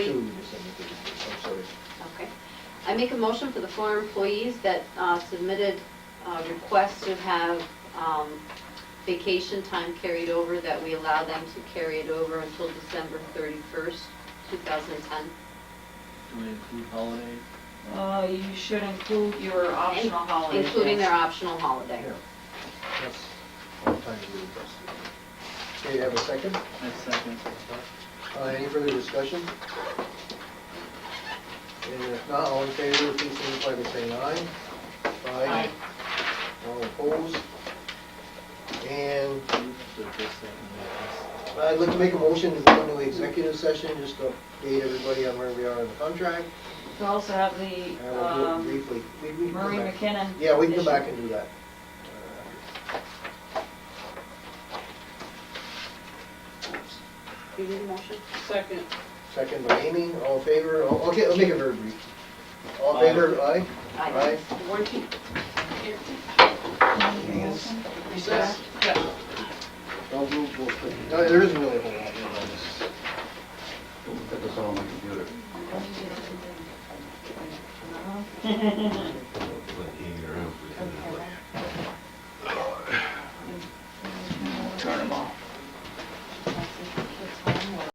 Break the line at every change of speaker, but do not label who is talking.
two, you said you did, I'm sorry.
Okay. I make a motion for the four employees that uh, submitted uh, requests to have um, vacation time carried over, that we allow them to carry it over until December 31st, 2010.
Do we include holiday?
Uh, you should include your optional holidays.
Including
yes.
their optional holiday.
Yeah. That's all the time we requested. Okay, you have a second?
That's second.
Uh, Any further discussion? And if not, all in favor, please signify by saying aye.
Aye.
All opposed? And
You put this second,
I'd like to make a motion to go into executive session, just to update everybody on where we are in the contract.
We also have
And
the,
we'll do it
um,
briefly. Uh, We- we can come
Marie
back.
McKinnon.
Yeah, we can go
issue.
back and do that.
Do you need a motion?
Second.
Second by Amy, all in favor, All- okay, I'll make it very brief. All in favor, aye? Aye.
One, two.
Recess.
Yeah.
Don't move, we'll put.
No, there isn't really a whole lot going on this.
Put this on my computer.
Uh-huh.